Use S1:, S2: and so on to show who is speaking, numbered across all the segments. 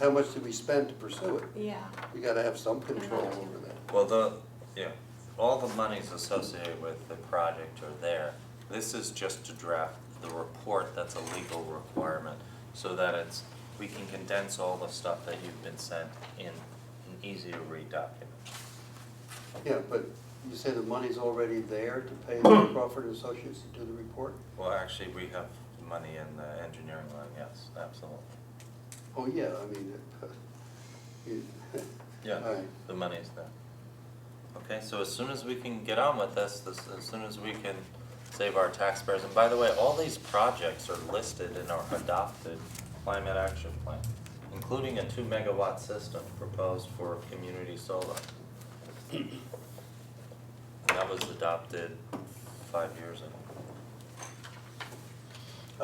S1: how much did we spend to pursue it?
S2: Yeah,
S1: We gotta have some control over that.
S3: Well, the, yeah, all the monies associated with the project are there. This is just to draft the report that's a legal requirement, so that it's, we can condense all the stuff that you've been sent in an easy to read document.
S1: Yeah, but you say the money's already there to pay the Crawford and Associates to do the report?
S3: Well, actually, we have money in the engineering line, yes, absolutely.
S1: Oh, yeah, I mean, it- you- all
S3: Yeah,
S1: right.
S3: the money's there. Okay, so as soon as we can get on with this, this, as soon as we can save our taxpayers, and by the way, all these projects are listed in our adopted climate action plan, including a two megawatt system proposed for community solar. And that was adopted five years ago.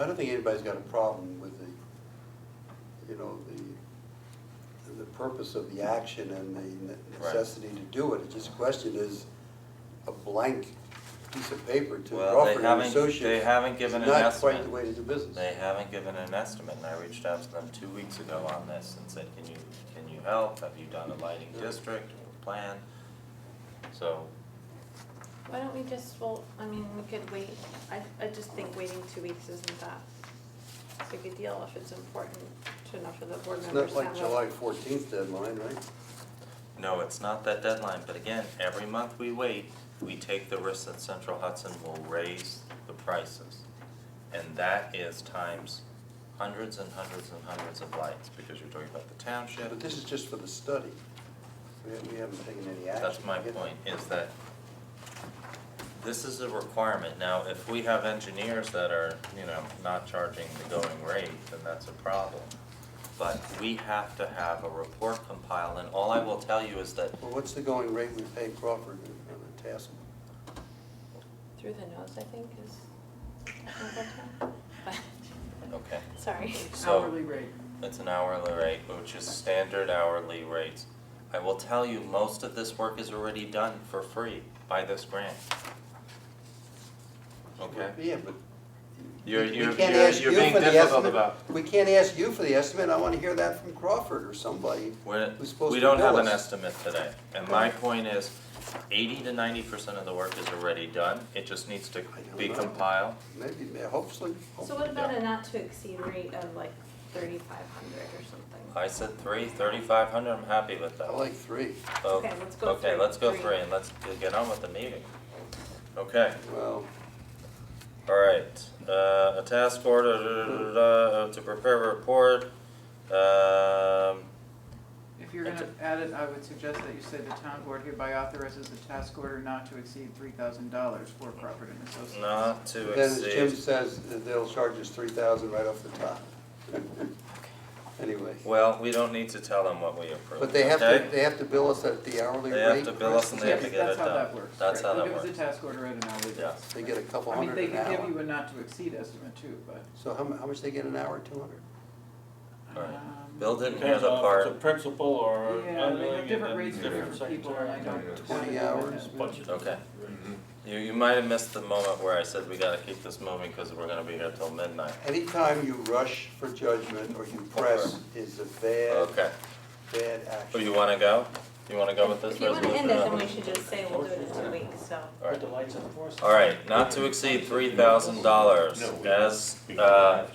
S1: I don't think anybody's got a problem with the, you know, the, the purpose of the action and the ne-
S3: Right.
S1: necessity to do it. It's just a question is a blank piece of paper to
S3: Well, they
S1: Crawford and
S3: haven't,
S1: Associates.
S3: they haven't given an
S1: It's not quite the
S3: estimate.
S1: way to do business.
S3: They haven't given an estimate, and I reached out to them two weeks ago on this and said, can you, can you help? Have you done a lighting district or plan? So,
S2: why don't we just, well, I mean, we could wait, I, I just think waiting two weeks isn't that big a deal if it's important to enough of the board
S1: It's
S2: members
S1: not
S2: to have.
S1: like
S2: a-
S1: July fourteenth deadline, right?
S3: no, it's not that deadline, but again, every month we wait, we take the risk that Central Hudson will raise the prices. And that is times hundreds and hundreds and hundreds of lights, because you're talking about the township.
S1: But this is just for the study. We ha- we haven't taken any action.
S3: That's my point, is that this is a requirement. Now, if we have engineers that are, you know, not charging the going rate, then that's a problem. But we have to have a report compiled, and all I will tell you is that,
S1: Well, what's the going rate we pay Crawford on the task?
S2: Through the nose, I think, is technical term, but,
S3: okay,
S2: sorry.
S3: so.
S4: hourly rate.
S3: It's an hourly rate, which is standard hourly rates. I will tell you, most of this work is already done for free by this grant. Okay?
S1: Yeah, but.
S3: You're,
S1: we- we
S3: you're,
S1: can't
S3: you're,
S1: ask
S3: you're
S1: you
S3: being
S1: for the
S3: difficult
S1: estimate.
S3: about.
S1: We can't ask you for the estimate, I wanna hear that from Crawford or somebody
S3: We're,
S1: who's supposed to
S3: we don't
S1: bill
S3: have an
S1: us.
S3: estimate today, and my
S1: Right.
S3: point is, eighty to ninety percent of the work is already done, it just needs to
S1: I don't
S3: be
S1: know.
S3: compiled.
S1: Maybe, may- hopefully.
S2: So what about a not to exceed rate of like thirty-five hundred or something?
S3: I said three, thirty-five hundred, I'm happy with that.
S1: I like three,
S3: Oh,
S2: Okay, let's go
S3: Okay,
S2: three,
S3: let's go
S2: three.
S3: three, and let's get on with the meeting. Okay.
S1: well,
S3: All right, uh, a task order, da, da, da, da, uh, to prepare a report, um,
S4: If you're gonna add it, I would suggest that you say the town board hereby authorizes the task order not to exceed three thousand dollars for Crawford and Associates.
S3: not to
S1: then as Jim
S3: exceed.
S1: says, they'll charge us three thousand right off the top. Anyway,
S3: Well, we don't need to tell them what we approve,
S1: but they have to,
S3: okay?
S1: they have to bill us at the hourly
S3: They
S1: rate.
S3: have to bill us and they have to
S4: Yes,
S1: Chris?
S3: get it
S4: that's how
S3: done.
S4: that works.
S3: That's
S4: right.
S3: how that
S4: They'll
S3: works.
S4: give us a task order at an hourly rate.
S3: Yeah.
S1: They get a couple
S4: I mean, they
S1: hundred an
S4: could give you
S1: hour.
S4: a not to exceed estimate too, but.
S1: So how mu- how much they get an hour, two hundred?
S3: All right.
S4: um,
S3: Bill didn't hear
S5: Depends
S3: the
S5: on if it's a
S3: part,
S5: principal or an
S4: Yeah, they
S5: unwilling
S4: have
S5: and
S4: different
S5: then
S4: rates for
S5: different
S4: different people, and I
S5: secretary.
S4: don't.
S1: Twenty hours,
S5: Bunch of-
S3: okay. You, you might have missed the moment where I said we gotta keep this moving, cause we're gonna be here till midnight.
S1: Anytime you rush for judgment or you press is a bad,
S3: Okay,
S1: bad
S3: so you
S1: action.
S3: wanna go? You wanna go with this
S2: If you wanna end
S3: resolution?
S2: it, then we should just say we'll do it in two weeks, so.
S3: All right.
S5: Put the lights on for us.
S3: Alright, not to exceed three thousand dollars as uh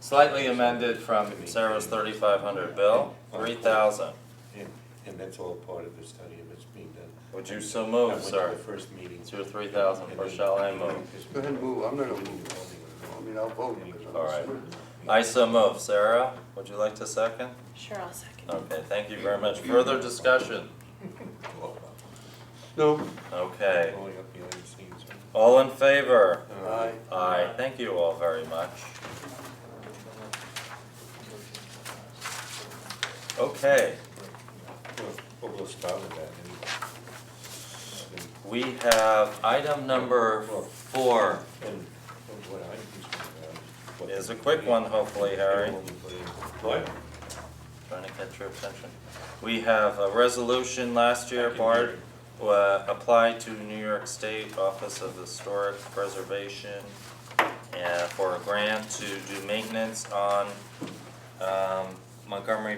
S3: slightly amended from Sarah's thirty-five hundred bill, three thousand.
S6: And, and that's all part of the study and it's being done.
S3: Would you so move,
S6: I
S3: sir?
S6: went to the first meeting.
S3: It's your three thousand,
S6: and
S3: or
S6: then-
S3: shall I move?
S1: Go ahead and move, I'm not gonna move. I mean, I'll vote. but I'm-
S3: All right. I so move, Sarah, would you like to second?
S2: Sure, I'll second.
S3: Okay, thank you very much, further discussion,
S1: No,
S3: okay,
S6: Pulling up behind the scenes.
S3: all in favor?
S1: aye.
S3: Aye, thank you all very much. Okay,
S6: Well, Well, we'll start with that
S3: we have item number four,
S6: and, and what I'm concerned about is what.
S3: It's a quick one, hopefully, Harry.
S6: What?
S3: Trying to catch your attention. We have a resolution last year,
S6: I can
S3: Bart,
S6: hear
S3: uh, applied to New York State Office of Historic Preservation uh, for a grant to do maintenance on um, Montgomery